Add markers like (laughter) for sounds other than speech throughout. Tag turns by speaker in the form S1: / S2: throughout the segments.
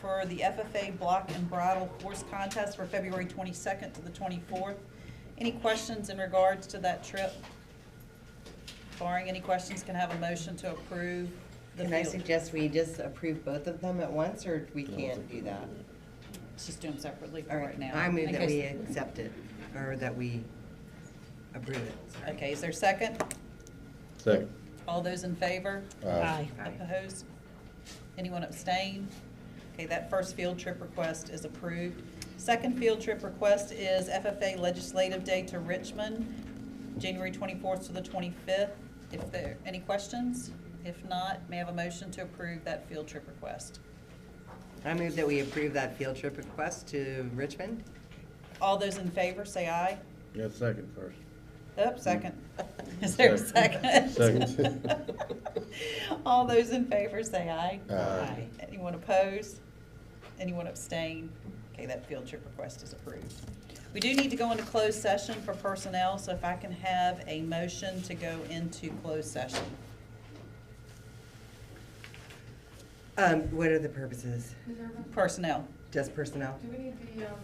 S1: for the FFA Block and Bridle Horse Contest for February 22nd to the 24th. Any questions in regards to that trip? Barring any questions, can I have a motion to approve the
S2: Can I
S1: field?
S2: suggest we just approve both of them at once, or we can't do that?
S1: Let's just do them separately for
S2: All
S1: right
S2: right,
S1: now.
S2: I move
S1: in
S2: that we
S1: case-
S2: accept it, or that we approve it. sorry.
S1: Okay, is there a second?
S3: Second.
S1: All those in favor?
S3: Aye.
S2: Aye.
S1: Opposed? Anyone abstain? Okay, that first field trip request is approved. Second field trip request is FFA Legislative Day to Richmond, January 24th to the 25th. If there, any questions? If not, may I have a motion to approve that field trip request?
S2: I move that we approve that field trip request to Richmond.
S1: All those in favor, say aye.
S3: You got second first.
S1: Oh, second. (laughs) Is there a second?
S3: Second.
S1: (laughs) All those in favor say aye.
S3: Aye. Aye.
S1: Anyone opposed? Anyone abstain? Okay, that field trip request is approved. We do need to go into closed session for personnel, so if I can have a motion to go into closed session.
S2: Um, what are the purposes?
S4: Ms. Irvin,
S1: Personnel.
S2: Just personnel?
S4: do we need the, um,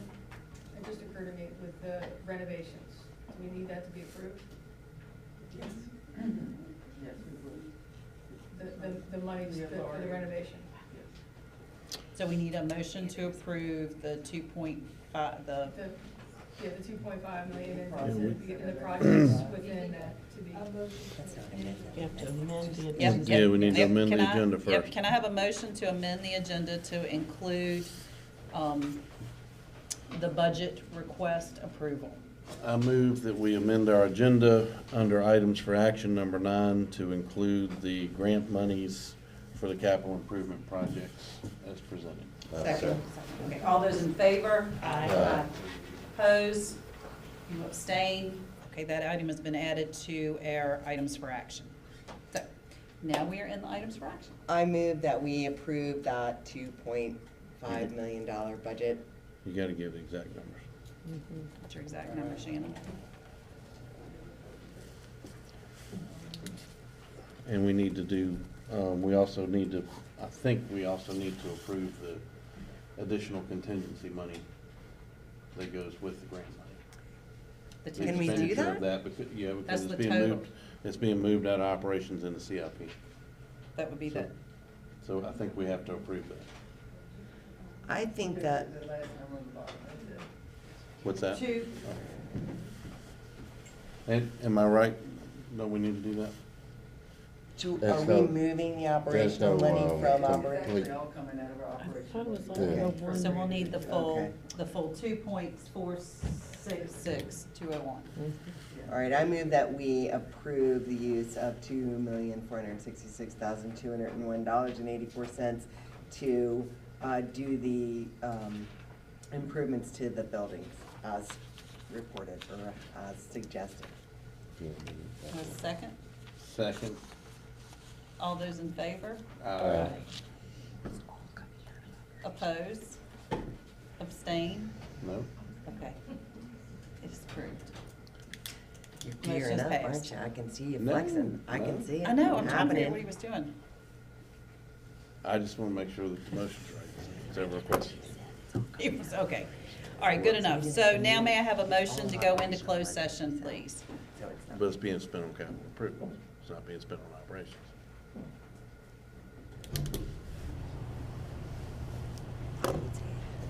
S4: it just occurred to me with the renovations, do we need that to be approved? Yes.
S5: Yes, we would,
S4: The, the, the money
S5: The
S4: for the
S5: authority.
S4: renovation?
S5: yes.
S1: So we need a motion to approve the two point five, the,
S4: The, yeah, the two point five million and
S5: Yeah,
S3: we-
S4: and the projects within that to be.
S2: That's not what I meant.
S5: You have to amend the
S1: yep,
S5: agenda.
S1: yep.
S3: Yeah, we need to
S1: yep.
S3: amend the
S1: Can I-
S3: agenda
S1: yep,
S3: first.
S1: Can I have a motion to amend the agenda to include, um, the budget request approval?
S3: I move that we amend our agenda under items for action number nine to include the grant monies for the capital improvement projects as presented.
S2: Second.
S1: Okay, all those in favor?
S3: Aye.
S1: Oppose? You abstain? Okay, that item has been added to our items for action. So, now we are in the items for action.
S2: I move that we approve that two point
S6: Mm-hmm.
S2: five million dollar budget.
S3: You gotta give the exact numbers.
S1: What's your exact number, Shannon?
S3: And we need to do, um, we also need to, I think we also need to approve the additional contingency money that goes with the grant money.
S1: The
S3: The
S2: Can we
S1: team-
S2: do
S3: expenditure of
S2: that?
S3: becau- Yeah,
S1: That's
S3: because
S1: the
S3: it's being
S1: total.
S3: moved, it's being moved out of operations into CIP.
S1: That would be the,
S3: So I think we have to approve that.
S2: I think that,
S5: The last number on the bottom, that's it.
S3: What's that?
S1: two,
S3: And, am I right? No, we need to do that?
S2: do- are
S6: That's
S2: we
S6: no-
S2: moving the operational
S6: no,
S2: money
S6: um,
S2: from
S6: com-
S2: operating?
S5: It's actually all coming out of our operation.
S7: thought it was
S6: Yeah.
S1: so we'll need the full,
S2: Okay.
S1: the full two point four six six two oh one.
S2: All right, I move that we approve the use of two million, four hundred and sixty-six thousand, two hundred and one dollars and eighty-four cents to, uh, do the, um, improvements to the buildings as reported or as suggested. Mm-hmm.
S1: Second,
S3: Second.
S1: all those in favor?
S3: Uh,
S1: Oppose? Abstain?
S3: No?
S1: Okay. It is approved.
S2: You're
S1: Well, it's
S2: gearing
S1: just
S2: up,
S1: passed.
S2: aren't you? I can see you
S3: No,
S2: flexing. I
S3: no.
S2: can see it
S1: I know, I'm trying to figure out what he
S2: happening.
S1: was doing. (laughs)
S3: I just wanna make sure that the motion's right. Is that a question?
S1: It was, okay. All right, good enough. So now may I have a motion to go into closed session, please?
S2: So it's not-
S3: But it's being spent on capital improvement. It's not being spent on operations.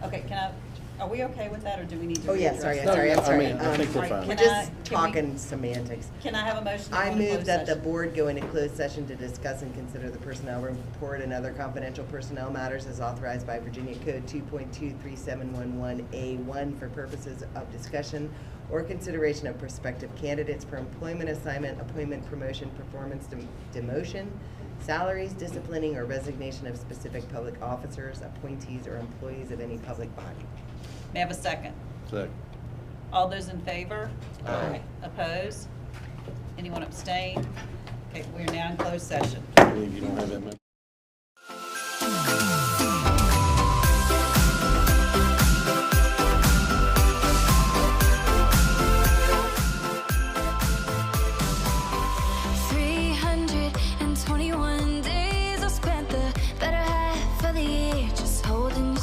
S1: Okay, can I, are we okay with that, or do we need to?
S2: Oh, yeah, sorry,
S1: readdress?
S2: I'm sorry, I'm
S3: I
S2: sorry.
S3: mean, I
S2: Um,
S3: think we're
S1: Right,
S3: fine.
S2: We're
S1: can I-
S2: just
S1: can we-
S2: talking semantics.
S1: Can I have a motion to go
S2: I
S1: into
S2: move
S1: closed
S2: that the
S1: session?
S2: board go into closed session to discuss and consider the personnel report and other confidential personnel matters as authorized by Virginia Code two point two three seven one one A one for purposes of discussion or consideration of prospective candidates for employment assignment, appointment, promotion, performance, dem- demotion, salaries, disciplining, or resignation of specific public officers, appointees, or employees of any public body.
S1: May I have a second?
S3: Second.
S1: All those in favor?
S3: Aye.
S1: Oppose? Anyone abstain? Okay, we are now in closed session.
S3: I believe you don't have that much.